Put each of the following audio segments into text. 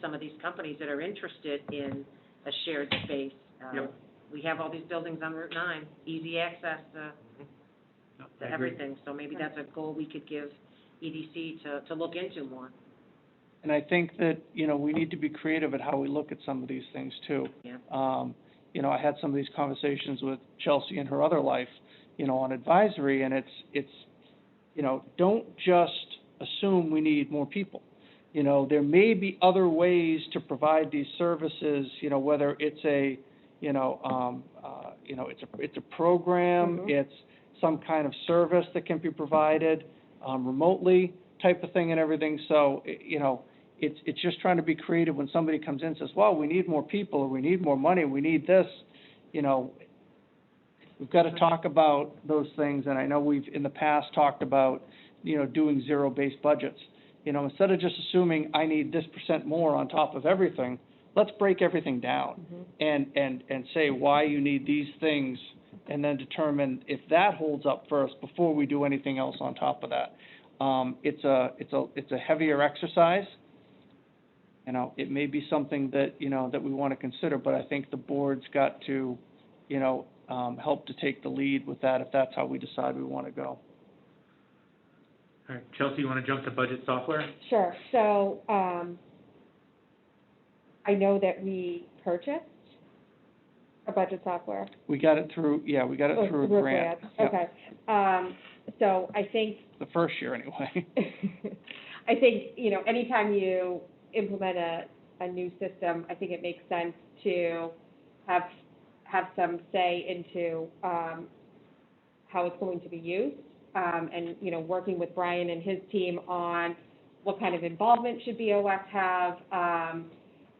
some of these companies that are interested in a shared space. Uh, Yep. We have all these buildings on Route nine, easy access to, No, I to agree. everything. So maybe that's a goal we could give EDC to, to look into more, And I think that, you know, we need to be creative at how we look at some of these things too. Yeah. Um, you know, I had some of these conversations with Chelsea in her other life, you know, on advisory, and it's, it's, you know, don't just assume we need more people. You know, there may be other ways to provide these services, you know, whether it's a, you know, um, uh, you know, it's a, it's a program, Mhm. it's some kind of service that can be provided, um, remotely type of thing and everything, so, i- you know, it's, it's just trying to be creative when somebody comes in and says, well, we need more people, or we need more money, we need this, you know, we've got to talk about those things, and I know we've, in the past, talked about, you know, doing zero-based budgets. You know, instead of just assuming I need this percent more on top of everything, let's break everything down Mm-hmm. and, and, and say why you need these things, and then determine if that holds up first before we do anything else on top of that. Um, it's a, it's a, it's a heavier exercise. You know, it may be something that, you know, that we want to consider, but I think the board's got to, you know, um, help to take the lead with that if that's how we decide we want to go. All right, Chelsea, you want to jump to budget software? Sure, so, um, I know that we purchased a budget software. We got it through, yeah, we got it Oh, through a grant. Yep, Okay, um, so I think, The first year, anyway. I think, you know, anytime you implement a, a new system, I think it makes sense to have, have some say into, um, how it's going to be used. Um, and, you know, working with Brian and his team on what kind of involvement should BOS have, um,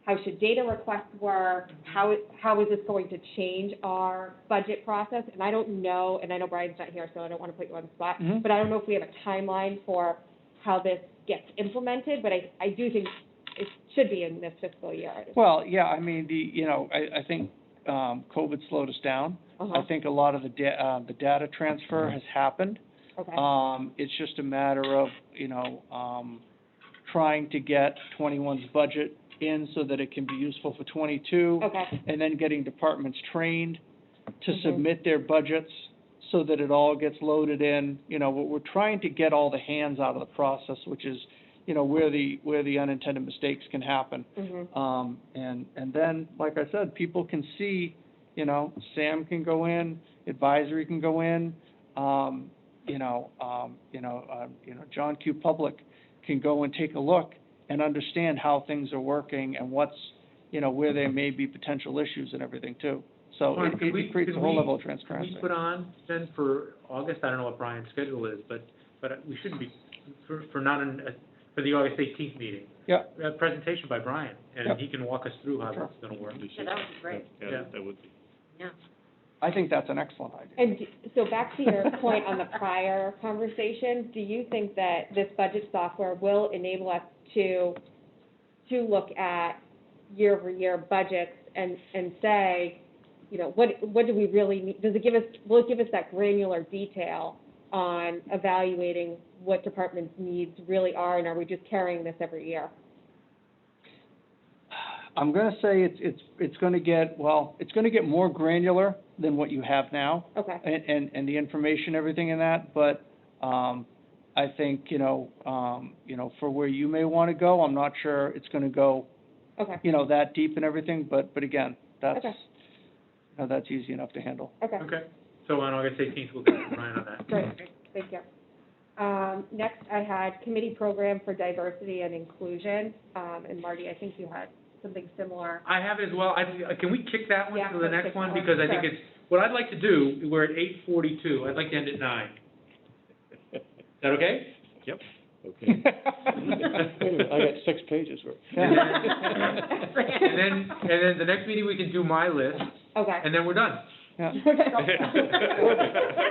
how should data requests work, how, how is this going to change our budget process? And I don't know, and I know Brian's not here, so I don't want to put you on the spot, Mhm. but I don't know if we have a timeline for how this gets implemented, but I, I do think it should be in this fiscal year. Well, yeah, I mean, the, you know, I, I think, um, COVID slowed us down. I Uh-huh, think a lot of the da- uh, the data transfer has happened. okay, Um, it's just a matter of, you know, um, trying to get twenty-one's budget in so that it can be useful for twenty-two. okay, And then getting departments trained to Mhm. submit their budgets so that it all gets loaded in. You know, we're, we're trying to get all the hands out of the process, which is, you know, where the, where the unintended mistakes can happen. hmm Um, and, and then, like I said, people can see, you know, Sam can go in, advisory can go in, um, you know, um, you know, um, you know, John Q. Public can go and take a look and understand how things are working and what's, you know, where there may be potential issues and everything too. So Lauren, it, could we- it creates could a whole we- level of Can transparency. we put on then for August, I don't know what Brian's schedule is, but, but we shouldn't be, for, for not an, uh, for the August eighteenth meeting. Yeah. A presentation by Brian, Yeah. and he can walk us through how Sure. that's gonna work. Yeah, that would be great. Yeah. Yeah, that would be. yeah. I think that's an excellent idea. And d- so back to your point on the prior conversation, do you think that this budget software will enable us to, to look at year-over-year budgets and, and say, you know, what, what do we really need? Does it give us, will it give us that granular detail on evaluating what departments' needs really are, and are we just carrying this every year? I'm gonna say it's, it's, it's gonna get, well, it's gonna get more granular than what you have now. Okay, and, and, and the information, everything in that, but, um, I think, you know, um, you know, for where you may wanna go, I'm not sure it's gonna go, okay, you know, that deep and everything, but, but again, that's, Okay. you know, that's easy enough to handle. okay. Okay, so on August eighteenth, we'll get to Brian on that. Great, thank you. Um, next, I had committee program for diversity and inclusion, um, and Marty, I think you had something similar. I have as well, I, can we kick that one Yeah, to the let's next kick one, that one. because I think Sure. it's, what I'd like to do, we're at eight forty-two, I'd like to end at nine. Is that okay? Okay. Wait a minute, I got six pages worth. And then, and then, and then the next meeting, we can do my list, Okay. and then we're done. Yeah.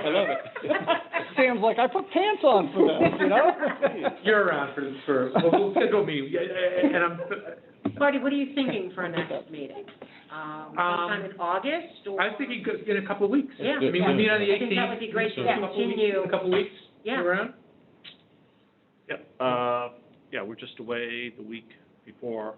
I love Sam's like, I put pants on for this, you know? You're around for, for, well, we'll schedule me, and I'm, Marty, what are you thinking for a next meeting? Um, sometime in August or? I was thinking go- in a couple of weeks. Yeah. I mean, we meet on the I think eighteenth. that would be great to A couple of weeks- continue. A couple of weeks, Yeah. around? Yep, uh, yeah, we're just away the week before